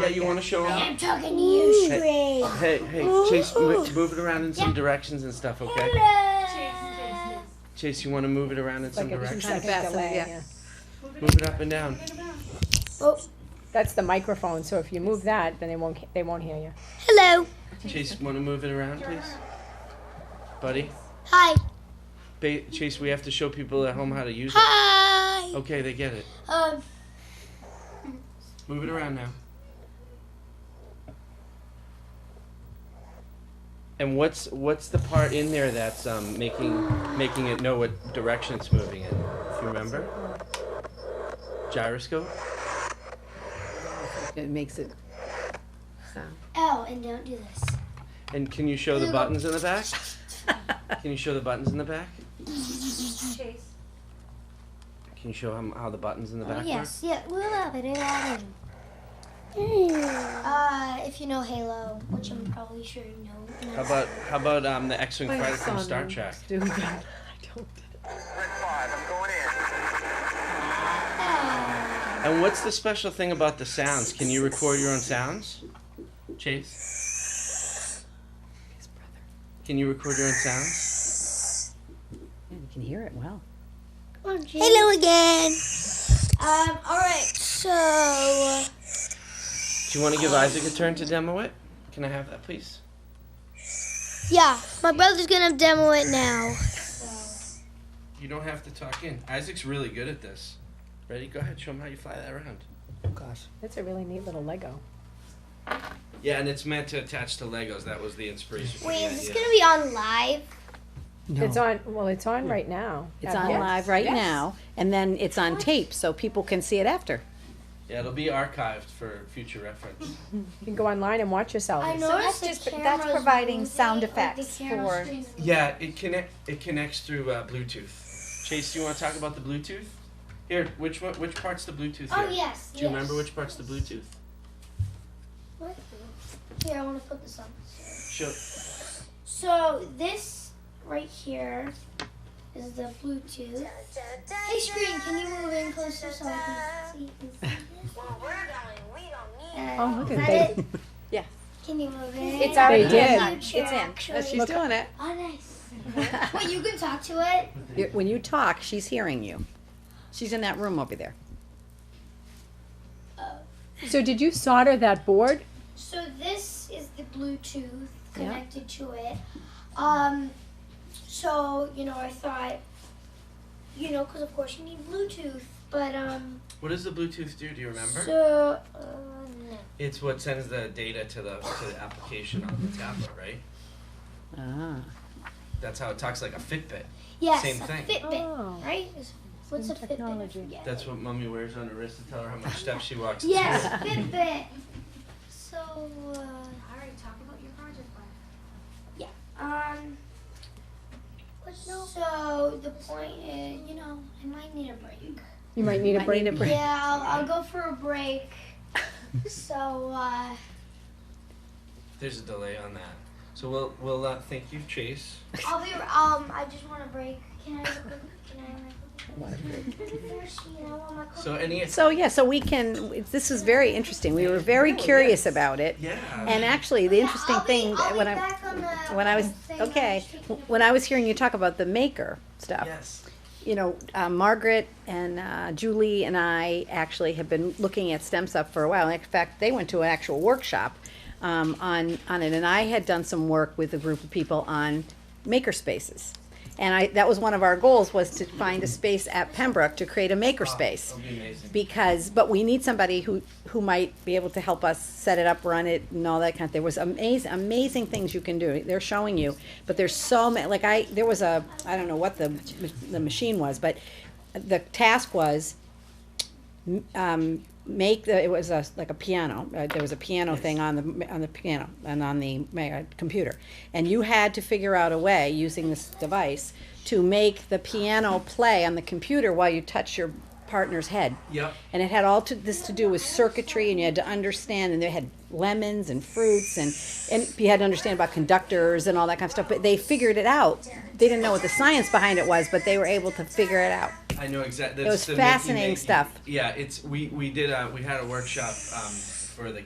Yeah, you want to show them? I'm talking to you, Sh- Great. Hey, hey, Chase, mo- move it around in some directions and stuff, okay? Hello. Chase, you want to move it around in some Like a two directions? second Bassett, delay. yeah. yeah. Move it up and down. That's the microphone, so if you move that, then they won't, ca- they won't hear you. Hello. Chase, want to move it around, please? Buddy? Hi. Ba- Chase, we have to show people at home how to use it. Hi. Okay, they get it. Um. Move it around now. And what's what's the part in there that's um, making making it know what direction it's moving in? If you remember, gyroscope. It makes it sound. Oh, and don't do this. And can you show the buttons in the back? Can you show the buttons in the back? Chase. Can you show them how the buttons in the back Yes. Yeah, we'll have it. It'll happen. Uh, if you know Halo, which I'm probably sure you work? know. How about how about um, the X-wing My fighter from son Star is Trek? doing that. I don't. Oh. And what's the special thing about the sounds? Can you record your own sounds, Chase? His brother. Can you record your own sounds? Yeah, you can hear it well. Hello again. Um. All right. So. Do you want to give Isaac a turn to demo it? Can I have that, please? Yeah, my brother's gonna demo it now. You don't have to talk in. Isaac's really good at this. Ready? Go ahead. Show him how you fly that around. Oh gosh. That's a really neat little Lego. Yeah, and it's meant to attach to Legos. That was the inspiration. for Wait, the is this idea. gonna be on live? No. It's on, well, it's on right now. It's Uh, on yes, live right yes. now, and then it's on tape, so people can see it after. Yeah, it'll be archived for future reference. You can go online and watch yourself. I So know that's just, that's providing sound effects for, yeah, it connect it connects through uh, Bluetooth. Chase, do you want to talk about the Bluetooth? Here, which one, which part's the Bluetooth? Oh here? yes. Do you remember which part's the Bluetooth? What? Here, I want to put this on. Show. So this right here is the Bluetooth. Hey, screen, can you move in closer so I can see? Oh, look at that. they- Yeah. Can you move in? it's already did. in. It's Future, in. She's Actually. Look- doing it. Oh, nice. Wait, you can talk to it. You're- When you talk, she's hearing you. She's in that room over there. So did you solder that board? Oh. So this is the Bluetooth connected to it. Um, so you know, I thought, you know, because of course you need Bluetooth, but um, What does the Bluetooth do? Do you remember? so uh, no. it's what sends the data to the to the application on the tablet, right? Ah. That's how it talks like a Fitbit. yes, Same a thing. Fitbit, Oh. right? Is- What's a Fitbit? I technology. forget. That's what mommy wears on her wrist to tell her how much steps she walks. Yes, Fitbit. So uh, All right, talk about your project. um. So the point is, you know, I might need a break. You might need a Might need a break. break. Yeah, I'll, I'll go for a break. so, uh, There's a delay on that. So we'll we'll uh, thank you, Chase. I'll be. Um, I just want a break. Can I? Have a, can I? Have a break? So any So yeah, so we can. This is very interesting. We were very curious about it, yeah. and actually, the interesting thing that when I when I was okay when I was hearing you talk about the maker stuff. yes. you know, uh, Margaret and uh, Julie and I actually have been looking at STEM stuff for a while. In fact, they went to an actual workshop um, on on it, and I had done some work with a group of people on maker spaces. And I, that was one of our goals was to find a space at Pembroke to create a maker space It'll be amazing. because but we need somebody who who might be able to help us set it up run it and all that kind of there was amazing amazing things you can do they're showing you but there's so many like i there was a i don't know what the the machine was but the task was um, make the it was a, like a piano. Uh, there was a piano thing on the on the piano and on the ma- uh, computer, and you had to figure out a way using this device to make the piano play on the computer while you touch your partner's head. Yep. And it had all to, this to do with circuitry, and you had to understand. And they had lemons and fruits, and and you had to understand about conductors and all that kind of stuff. But they figured it out. They didn't know what the science behind it was, but they were able to figure it out. I know exactly. was fascinating stuff. Yeah, it's we we did uh, we had a workshop um, for the